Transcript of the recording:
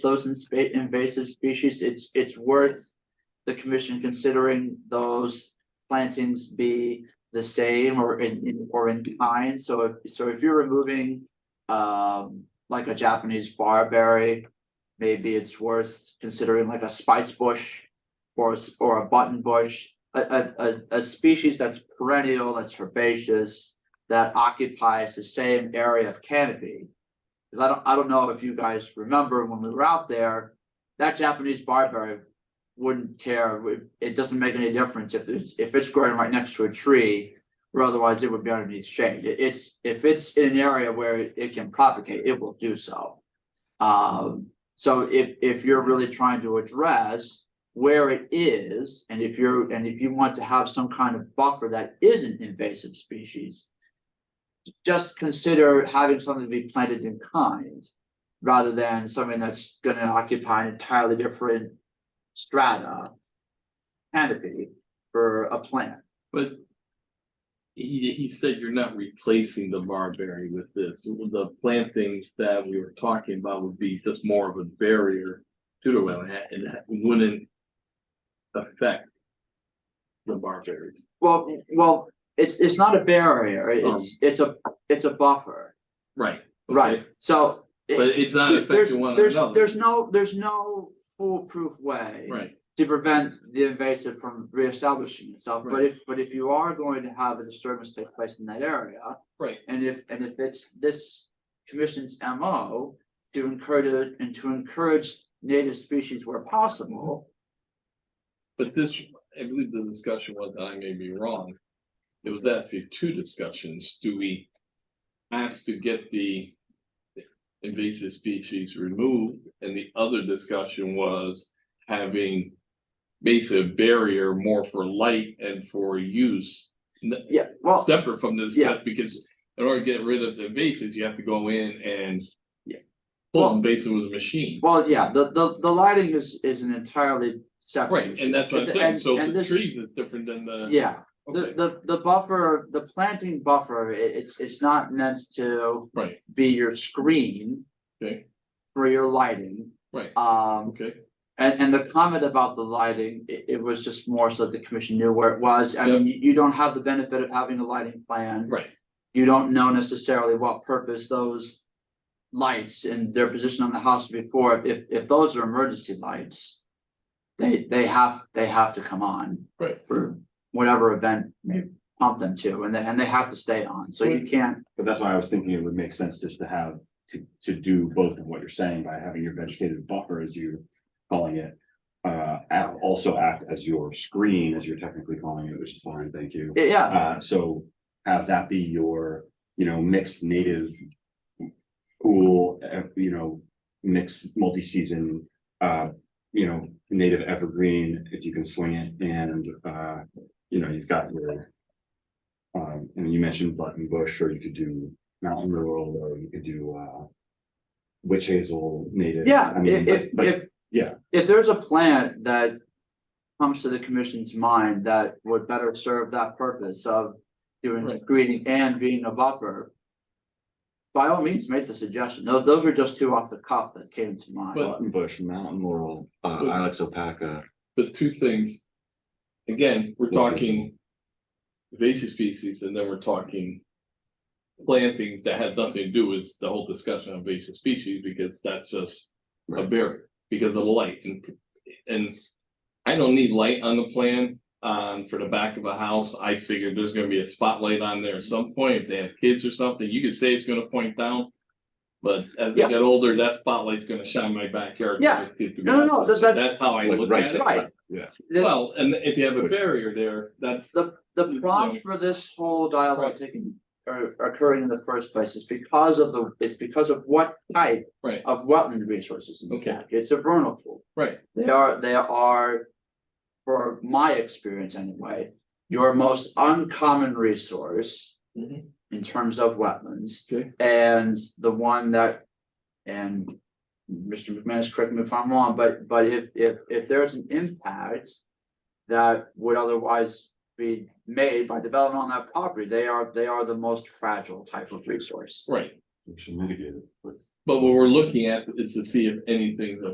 those inspa- invasive species, it's, it's worth the commission considering those plantings be the same or in, in- or in kind, so if, so if you're removing um, like a Japanese barberry, maybe it's worth considering like a spice bush or, a s- or a button bush, a, a, a, a species that's perennial, that's herbaceous, that occupies the same area of canopy. 'Cause I don't, I don't know if you guys remember when we were out there, that Japanese barberry wouldn't care, it, it doesn't make any difference if it's, if it's growing right next to a tree. Or otherwise it would be underneath shade, It- it's, if it's in an area where it it can propagate, it will do so. Um, so if, if you're really trying to address where it is, and if you're, and if you want to have some kind of buffer that isn't invasive species. Just consider having something to be planted in kind, rather than something that's gonna occupy an entirely different strata. Canopy for a plant. But he, he said you're not replacing the barberry with this. The plantings that we were talking about would be just more of a barrier to the wetland and that wouldn't affect the barberries. Well, well, it's, it's not a barrier, Um. it's, it's a, it's a buffer, Right. right, so. it- But it's not there- there's- affecting one there's- another. There's no, there's no foolproof way. Right, To prevent the invasive from reestablishing itself, but Right. if, but if you are going to have a disturbance take place in that area. right. And if, and if it's this commission's MO to encourage, and to encourage native species where possible. But this, I believe the discussion was, and I may be wrong. It was that the two discussions, do we ask to get the invasive species removed? And the other discussion was having basically a barrier more for light and for use. n- Yeah, well, Separate from this, yeah. stuff, because in order to get rid of the invasives, you have to go in and Yeah. pull them basically with a machine. well, yeah, the, the, the lighting is, is an entirely separate. Right, issue. and that's what I'm saying, And- so and the this- trees is different than the. Yeah, the, Okay, the, the buffer, the planting buffer, i- it's, it's not meant to right, be your screen. Okay. For your lighting, right, um, okay. And and the comment about the lighting, it it was just more so the commission knew where it was, I mean, you you don't have the benefit of having a lighting plan. Right, You don't know necessarily what purpose those. Lights and their position on the house before, if if those are emergency lights. They they have, they have to come on. Right. For whatever event may pump them to, and they and they have to stay on, so you can't, But that's why I was thinking it would make sense just to have, to, to do both of what you're saying by having your vegetative buffer, as you're calling it. Uh, act- also act as your screen, as you're technically calling it, which is fine, thank you. yeah, Uh, so have that be your, you know, mixed native. Cool, eh, you know, mixed multi-season, uh, you know, native evergreen, if you can swing it and, uh, you know, you've got your. Um, and you mentioned button bush, or you could do mountain laurel, or you could do, uh. Witch hazel native. yeah, I if mean, if but- but- if. yeah. If there's a plant that comes to the commission's mind that would better serve that purpose of doing Right. screening and being a buffer. By all means, make the suggestion. Those, those are just two off the cuff that came to mind. But- Button bush, mountain laurel, uh, But- Ilex opaca. but two things. Again, we're Okay. talking invasive species and then we're talking plantings that had nothing to do with the whole discussion of invasive species because that's just a Right. barrier because of the light and and I don't need light on the plan um for the back of a house. I figured there's gonna be a spotlight on there at some point. If they have kids or something, you could say it's gonna point down. But as they Yeah. get older, that spotlight's gonna shine my backyard. Yeah. No, no, no, that- that's- That's how I Like, look right at to- it. Right. Yeah. The, Well, and if you have a Which- barrier there, that, the, the prompt for this whole dialogue Right. taking, or occurring in the first place is because of the, it's because of what type right, of wetland resources. we Okay. have. It's a vernal pool. right, They are, they are, for my experience anyway, your most uncommon resource. Mhm. In terms of wetlands. Okay. And the one that, and Mr. McManus, correct me if I'm wrong, but, but if, if, if there's an impact. That would otherwise be made by development on that property, they are, they are the most fragile type of resource. right. We should mitigate it with. But what we're looking at is to see if anything's